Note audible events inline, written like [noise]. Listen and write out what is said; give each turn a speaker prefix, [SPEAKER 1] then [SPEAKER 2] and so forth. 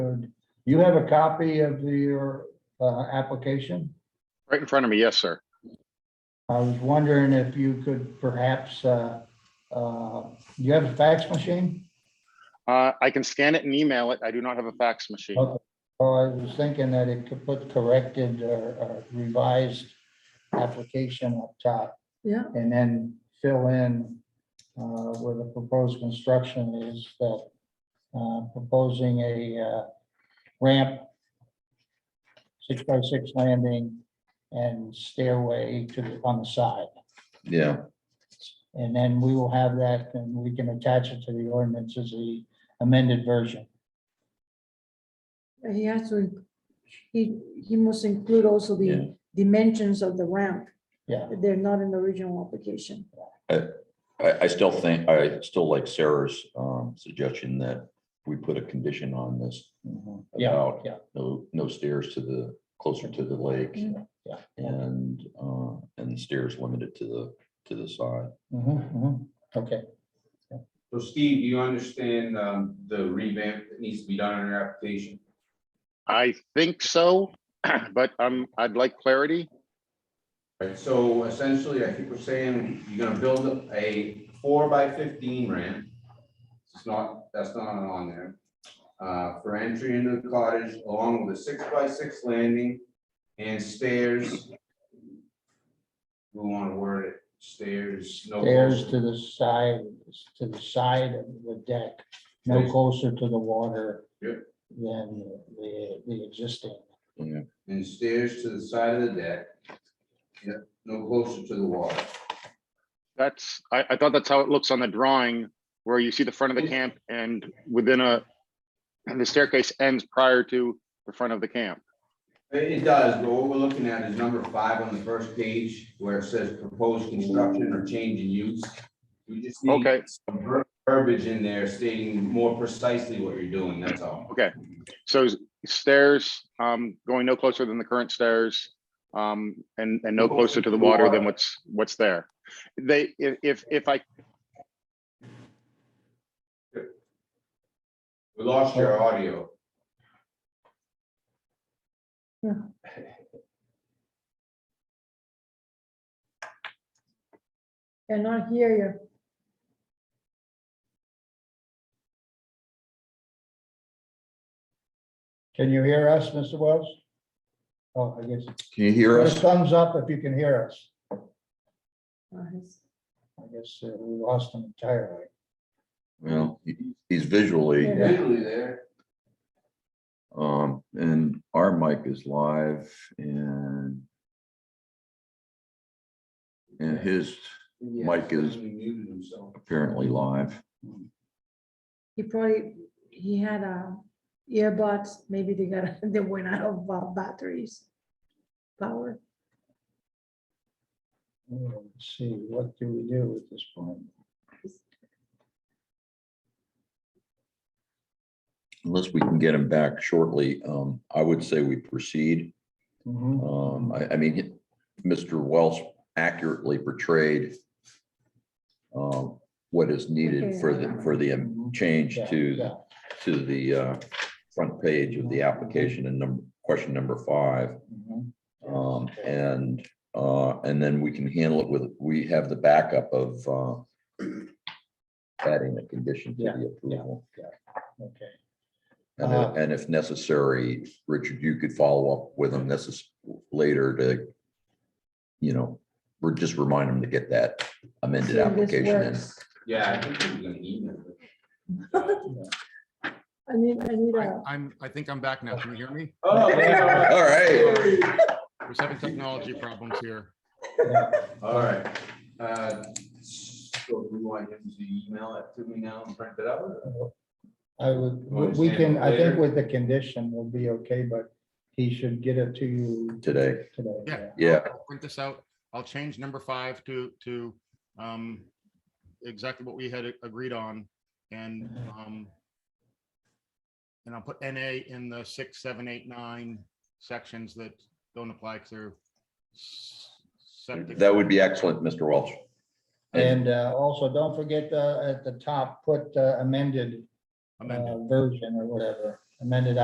[SPEAKER 1] You have a copy of the- your uh, application?
[SPEAKER 2] Right in front of me, yes, sir.
[SPEAKER 1] I was wondering if you could perhaps, uh, uh, you have a fax machine?
[SPEAKER 2] Uh, I can scan it and email it. I do not have a fax machine.
[SPEAKER 1] Okay. Or I was thinking that it could put corrected or or revised application up top
[SPEAKER 3] Yeah,
[SPEAKER 1] and then fill in uh, where the proposed construction is that uh, proposing a uh, ramp, six by six landing and stairway to, the on the side.
[SPEAKER 4] Yeah,
[SPEAKER 1] And then we will have that and we can attach it to the ordinance as the amended version.
[SPEAKER 3] he has to, he, he must include also
[SPEAKER 4] Yeah.
[SPEAKER 3] the dimensions of the ramp.
[SPEAKER 1] Yeah.
[SPEAKER 3] They're not in the original application.
[SPEAKER 4] I, I still think, I still like Sarah's um, suggestion that we put a condition on this.
[SPEAKER 1] Yeah,
[SPEAKER 4] about
[SPEAKER 1] yeah,
[SPEAKER 4] No, no stairs to the, closer to the lake
[SPEAKER 1] Mm-hmm. yeah.
[SPEAKER 4] and, uh, and stairs limited to the, to the side.
[SPEAKER 1] Mhm, mhm. Okay,
[SPEAKER 5] So Steve, do you understand um, the revamp that needs to be done on your application?
[SPEAKER 2] I think so, [clears throat] but um, I'd like clarity.
[SPEAKER 5] Right, so essentially, I think we're saying you're gonna build a four by fifteen ramp. It's not, that's not on there. Uh, for entry into the cottage along with a six by six landing and stairs. We wanna word it, stairs, no.
[SPEAKER 1] stairs to the side, to the side of the deck, no closer to the water
[SPEAKER 5] Yep.
[SPEAKER 1] than the, the existing.
[SPEAKER 5] And stairs to the side of the deck. Yep, no closer to the water.
[SPEAKER 2] That's, I, I thought that's how it looks on the drawing where you see the front of the camp and within a, and the staircase ends prior to the front of the camp.
[SPEAKER 5] It it does, but what we're looking at is number five on the first page where it says proposed construction or change in use. We just need
[SPEAKER 2] Okay,
[SPEAKER 5] some ver- verbiage in there stating more precisely what you're doing, that's all.
[SPEAKER 2] okay. So stairs, um, going no closer than the current stairs, um, and, and no closer to the water than what's, what's there. They, if, if, if I
[SPEAKER 5] We lost your audio.
[SPEAKER 3] Cannot hear you.
[SPEAKER 1] Can you hear us, Mr. Wells? Oh, I guess,
[SPEAKER 4] Can you hear
[SPEAKER 1] put a
[SPEAKER 4] us?
[SPEAKER 1] thumbs up if you can hear us.
[SPEAKER 3] Uh, he's-
[SPEAKER 1] I guess uh, we lost them entirely.
[SPEAKER 4] Well, he- he's visually,
[SPEAKER 3] Yeah.
[SPEAKER 5] Visually there.
[SPEAKER 4] um, and our mic is live and and his Mike is-
[SPEAKER 5] He Muted himself.
[SPEAKER 4] apparently live.
[SPEAKER 3] He probably, he had uh, earbuds, maybe they got, [laughs] they went out of uh, batteries. Power.
[SPEAKER 1] Let's see, what do we do at this point?
[SPEAKER 4] Unless we can get him back shortly, um, I would say we proceed.
[SPEAKER 1] Mhm.
[SPEAKER 4] Um, I, I mean, Mr. Welsh accurately portrayed um, what is needed for the, for the um, change
[SPEAKER 1] Mm-hmm. Yeah,
[SPEAKER 4] to,
[SPEAKER 1] yeah.
[SPEAKER 4] to the uh, front page of the application and number, question number five.
[SPEAKER 1] Mhm.
[SPEAKER 4] Um, and, uh, and then we can handle it with, we have the backup of uh, adding a condition to
[SPEAKER 1] Yeah,
[SPEAKER 4] the approval.
[SPEAKER 1] Okay,
[SPEAKER 4] And
[SPEAKER 1] Uh-huh.
[SPEAKER 4] if, and if necessary, Richard, you could follow up with them necess, later to, you know, we're just remind them to get that amended
[SPEAKER 3] See if this
[SPEAKER 4] application in.
[SPEAKER 3] works.
[SPEAKER 5] Yeah, I think he was gonna email it.
[SPEAKER 3] I need, I need
[SPEAKER 6] I-
[SPEAKER 3] a,
[SPEAKER 6] I'm, I think I'm back now. Can you hear me?
[SPEAKER 5] Oh, yeah.
[SPEAKER 4] All right,
[SPEAKER 6] We're having technology problems here.
[SPEAKER 5] All right. Uh, So we want him to email it to me now and print it out?
[SPEAKER 1] I would,
[SPEAKER 5] You wanna
[SPEAKER 1] we
[SPEAKER 5] save
[SPEAKER 1] can,
[SPEAKER 5] it
[SPEAKER 1] I think
[SPEAKER 5] later?
[SPEAKER 1] with the condition will be okay, but he should get it to you
[SPEAKER 4] today,
[SPEAKER 1] today.
[SPEAKER 6] Yeah.
[SPEAKER 4] yeah,
[SPEAKER 6] I'll Print this out. I'll change number five to, to, um, exactly what we had a- agreed on and, um, and I'll put NA in the six, seven, eight, nine sections that don't apply because they're s- septic.
[SPEAKER 4] that would be excellent, Mr. Welch.
[SPEAKER 1] And uh, also, don't forget uh, at the top, put uh, amended uh,
[SPEAKER 6] amended.
[SPEAKER 1] version or whatever, amended